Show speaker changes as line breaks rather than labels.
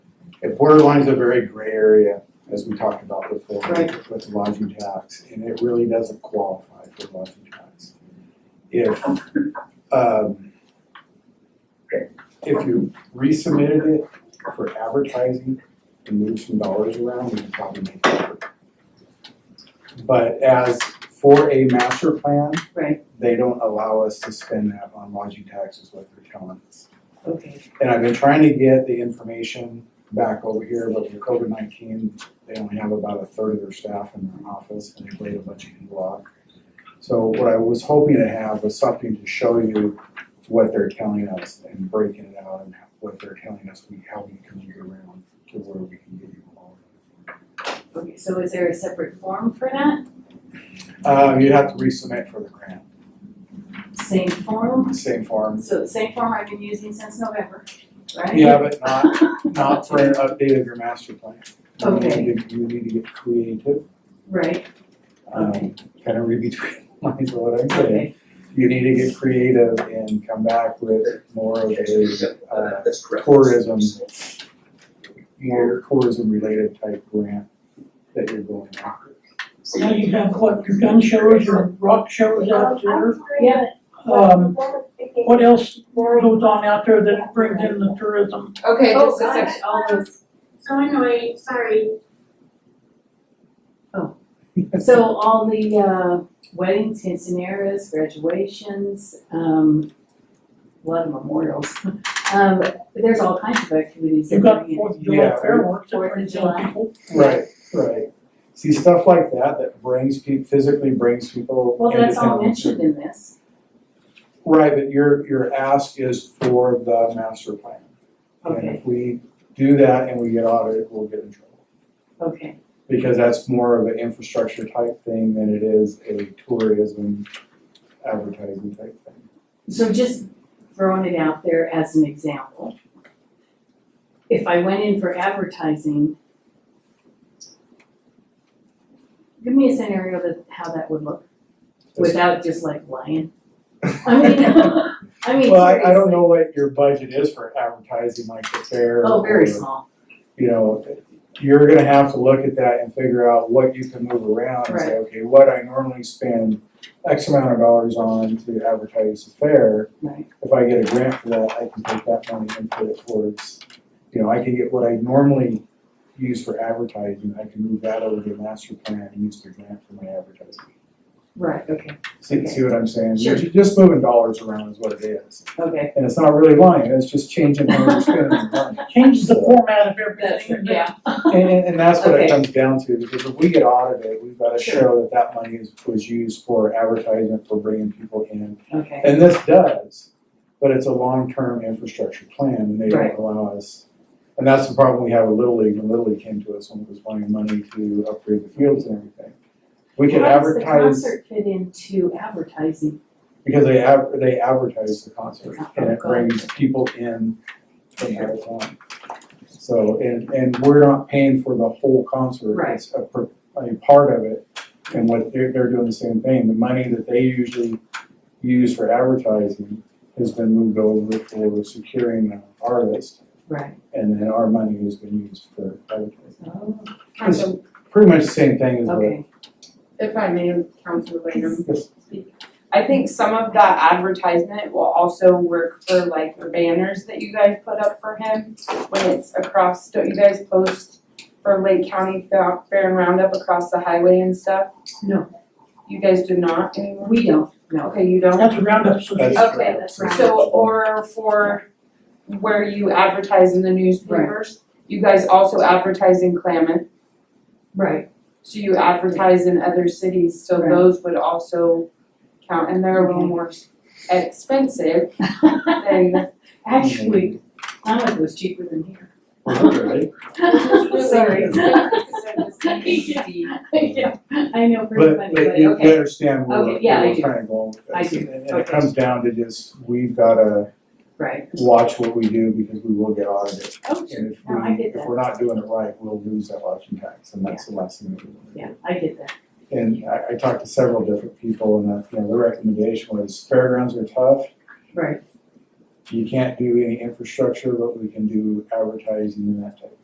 It borderlines a very gray area, as we talked about before,
Right.
with lodging tax, and it really doesn't qualify for lodging tax. If, um, if you resubmitted it for advertising and moved some dollars around, we could probably make it work. But as for a master plan.
Right.
They don't allow us to spend that on lodging taxes, what they're telling us.
Okay,
And I've been trying to get the information back over here, but with COVID nineteen, they only have about a third of their staff in their office and they've laid a bunch of people off. So what I was hoping to have was something to show you what they're telling us and breaking it out and what they're telling us, we, how we can move around to where we can get you all.
okay, so is there a separate form for that?
Um, you'd have to resubmit for the grant,
Same form?
same form.
So the same form I've been using since November, right?
Yeah, but not, not for an update of your master plan. You need
Okay.
to- You need to get creative.
Right,
um,
Okay.
kind of read between lines of what I'm saying.
okay,
You need to get creative and come back with more of a, uh,
That's correct.
tourism, more tourism-related type grant that you're going after.
So now you have what, your gun shows, your rock shows out there,
yeah,
um, what else goes on out there that brings in the tourism?
okay,
Oh,
just a
got it.
section, all those,
So anyway, sorry,
so all the, uh, weddings, centenaries, graduations, um, a lot of memorials. Um, but there's all kinds of activities that
You've got
bring in.
Fourth of July
Yeah.
fireworks that
Fourth of
brings in
July.
people.
Right, right. See, stuff like that, that brings people, physically brings people
Well,
into
that's all
town.
mentioned in this,
Right, but your, your ask is for the master plan. And
okay,
if we do that and we get audited, we'll get in trouble.
okay,
because that's more of an infrastructure type thing than it is a tourism advertising type thing.
so just throwing it out there as an example. If I went in for advertising. Give me a scenario that, how that would look, without just like lying, I mean, I mean,
Well, I, I don't
seriously.
know what your budget is for advertising like the fair.
Oh, very
or,
small,
You know, you're gonna have to look at that and figure out what you can move around and say, okay, what I normally spend X amount of dollars on to advertise the fair.
right,
If I get a grant for that, I can take that money and put it towards, you know, I can get what I normally use for advertising, I can move that over to master plan and use the grant for my advertising.
right, okay,
See, see what I'm saying?
Sure.
You're Just moving dollars around is what it is.
okay,
And it's not really lying, it's just changing how you're spending the money.
Changes the format of everything.
that's, yeah,
And, and, and that's what
Okay.
it comes down to, because if we get audited, we've gotta
Sure.
show that that money is, was used for advertisement, for bringing people in.
okay,
And this does, but it's a long-term infrastructure plan and they
Right.
don't allow us. And that's the problem we have with Little League, when Little League came to us when it was wanting money to upgrade the fields and everything. We could
How does
advertise,
the concert fit into advertising?
because they have, they advertise the concert and
Oh,
it
God.
brings people in from out of town. So, and, and we're not paying for the whole concert,
Right.
it's a, per- a part of it. And what, they're, they're doing the same thing, the money that they usually use for advertising has been moved over for securing the artist.
Right,
And then our money has been used for advertising.
oh,
It's pretty much the same thing as what.
okay,
If I may, Councilor Lanham,
Yes.
I think some of that advertisement will also work for like the banners that you guys put up for him when it's across, don't you guys post for Lake County Fa- Fair and Roundup across the highway and stuff?
No.
You guys do not anymore?
we don't, no,
Okay, you don't?
That's a roundup association.
That's
Okay,
correct.
that's
So, or for where you advertise in the newspapers, you guys also advertise in Klamath.
right,
So you advertise in other cities, so
Right.
those would also count, and they're a little more expensive than,
Actually, Klamath was cheaper than here.
sorry,
Sorry.
it's different because they're the same city.
Yeah, I know, pretty
But,
funny,
but
but
you you
okay,
understand where
Okay,
we're,
yeah, I
where we're
do.
trying to go with this.
I do.
And- And it
Okay.
comes down to just, we've gotta
right.
watch what we do because we will get audited.
Oh,
And if
No, I
we,
get
if
that.
we're not doing it right, we'll lose that lodging tax and that's the last thing that we want.
Yeah, I get that,
And I, I talked to several different people and, uh, you know, the recommendation was fairgrounds are tough.
right.
You can't do any infrastructure, but we can do advertising and that type of